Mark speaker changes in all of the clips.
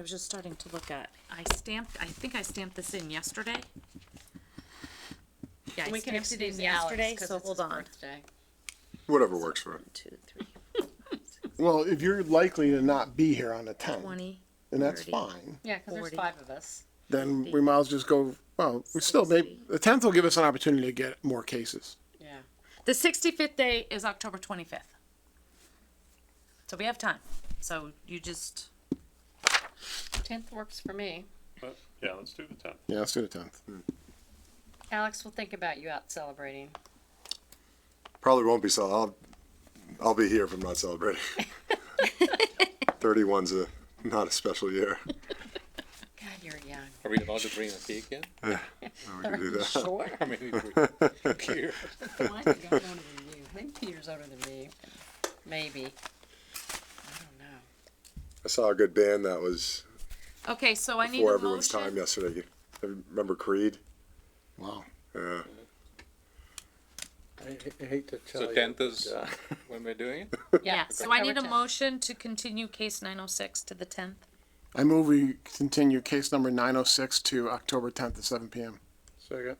Speaker 1: I was just starting to look at, I stamped, I think I stamped this in yesterday. Yeah, I
Speaker 2: We can
Speaker 1: stamped it in
Speaker 2: excuse Alex
Speaker 1: yesterday,
Speaker 2: 'cause
Speaker 1: so
Speaker 2: it's
Speaker 1: hold
Speaker 2: his
Speaker 1: on.
Speaker 2: birthday.
Speaker 3: Whatever works for it.
Speaker 2: Two, three.
Speaker 4: Well, if you're likely to not be here on the tenth,
Speaker 1: Twenty,
Speaker 4: then that's
Speaker 1: 30.
Speaker 4: fine.
Speaker 2: Yeah, because there's
Speaker 1: Forty.
Speaker 2: five of us.
Speaker 4: Then we might as well just go, well, we still maybe, the tenth will give us an opportunity to get more cases.
Speaker 2: Yeah.
Speaker 1: the sixty-fifth day is October twenty-fifth. So we have time, so you just,
Speaker 2: Tenth works for me.
Speaker 5: But, yeah, let's do the tenth.
Speaker 4: Yeah, let's do the tenth.
Speaker 2: Alex, we'll think about you out celebrating.
Speaker 3: Probably won't be so. I'll, I'll be here if I'm not celebrating. 31's a not a special year.
Speaker 2: God, you're young.
Speaker 6: Are we allowed to bring a cake in?
Speaker 3: We can do that.
Speaker 2: Sure.
Speaker 6: I mean, we- here.
Speaker 2: Mine's a lot older than you. Maybe two years older than me. Maybe. I don't know.
Speaker 3: I saw a good band that was
Speaker 1: okay, so I need
Speaker 3: before
Speaker 1: a
Speaker 3: everyone's time
Speaker 1: motion.
Speaker 3: yesterday. I remember Creed?
Speaker 4: Wow.
Speaker 3: Yeah.
Speaker 7: I h- I hate to tell you.
Speaker 6: So tenth is when we're doing it?
Speaker 1: Yeah, so I need a
Speaker 2: October 10th.
Speaker 1: motion to continue case nine oh six to the tenth.
Speaker 4: I move we continue case number nine oh six to October tenth at seven PM.
Speaker 7: Second,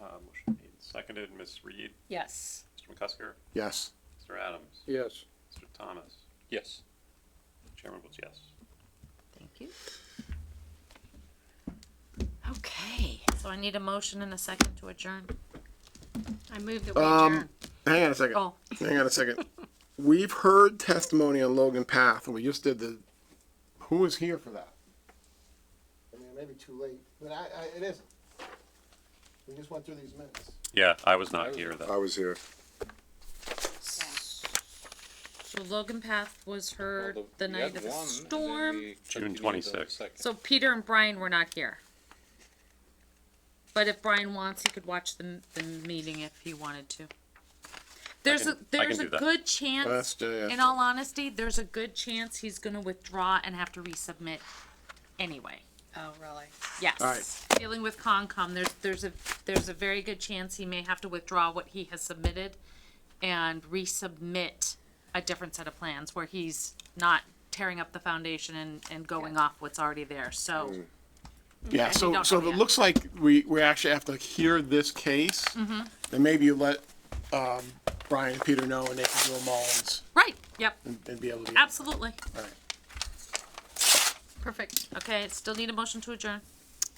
Speaker 5: Uh, motion made, and seconded, Ms. Reed,
Speaker 2: Yes.
Speaker 5: Mr. McCusker,
Speaker 4: Yes.
Speaker 5: Mr. Adams,
Speaker 7: yes.
Speaker 5: Mr. Thomas.
Speaker 6: Yes.
Speaker 5: Chairman votes yes.
Speaker 1: Thank you. Okay, so I need a motion and a second to adjourn.
Speaker 2: I moved the
Speaker 4: Um, hang on a second.
Speaker 1: Oh.
Speaker 4: Hang on a second. We've heard testimony on Logan Path, and we just did the. Who was here for that? I mean, it may be too late, but I, I, it isn't. We just went through these minutes.
Speaker 5: Yeah, I was not here
Speaker 3: I
Speaker 5: though.
Speaker 3: was here.
Speaker 1: So Logan Path was heard
Speaker 6: Well,
Speaker 1: the
Speaker 6: we
Speaker 1: night
Speaker 6: had
Speaker 1: of the
Speaker 6: one, and then
Speaker 1: storm.
Speaker 6: we continued on the
Speaker 5: 26th.
Speaker 6: second.
Speaker 1: So Peter and Brian were not here. But if Brian wants, he could watch the, the meeting if he wanted to. There's
Speaker 5: can-
Speaker 1: a,
Speaker 5: I
Speaker 1: there's
Speaker 5: can
Speaker 1: a
Speaker 5: do that.
Speaker 1: good chance,
Speaker 4: Last day
Speaker 1: in
Speaker 4: after.
Speaker 1: all honesty, there's a good chance he's gonna withdraw and have to resubmit anyway.
Speaker 2: Oh, really?
Speaker 4: Alright.
Speaker 1: Yes, dealing with Concom, there's, there's a, there's a very good chance he may have to withdraw what he has submitted and resubmit a different set of plans where he's not tearing up the foundation and, and going off what's already there, so.
Speaker 4: Yeah,
Speaker 1: we
Speaker 4: so,
Speaker 1: don't
Speaker 4: so
Speaker 1: know
Speaker 4: it
Speaker 1: yet.
Speaker 4: looks like we, we actually have to hear this case. Mm-hmm. Then maybe you let, um, Brian and Peter know and they can do a Mullins
Speaker 1: Right, yep,
Speaker 4: and, and be able to.
Speaker 1: absolutely,
Speaker 4: Alright.
Speaker 1: perfect, okay, still need a motion to adjourn.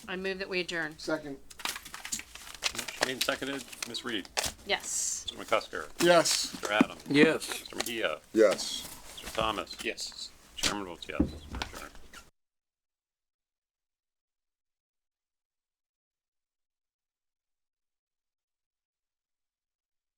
Speaker 2: I moved that we adjourn.
Speaker 4: Second.
Speaker 5: Motion made, and seconded, Ms. Reed,
Speaker 2: Yes.
Speaker 5: Mr. McCusker,
Speaker 4: Yes.
Speaker 5: Mr. Adams,
Speaker 7: Yes.
Speaker 5: Mr. Mejia,
Speaker 3: Yes.
Speaker 5: Mr. Thomas.
Speaker 6: Yes.
Speaker 5: Chairman votes yes. We're adjourned.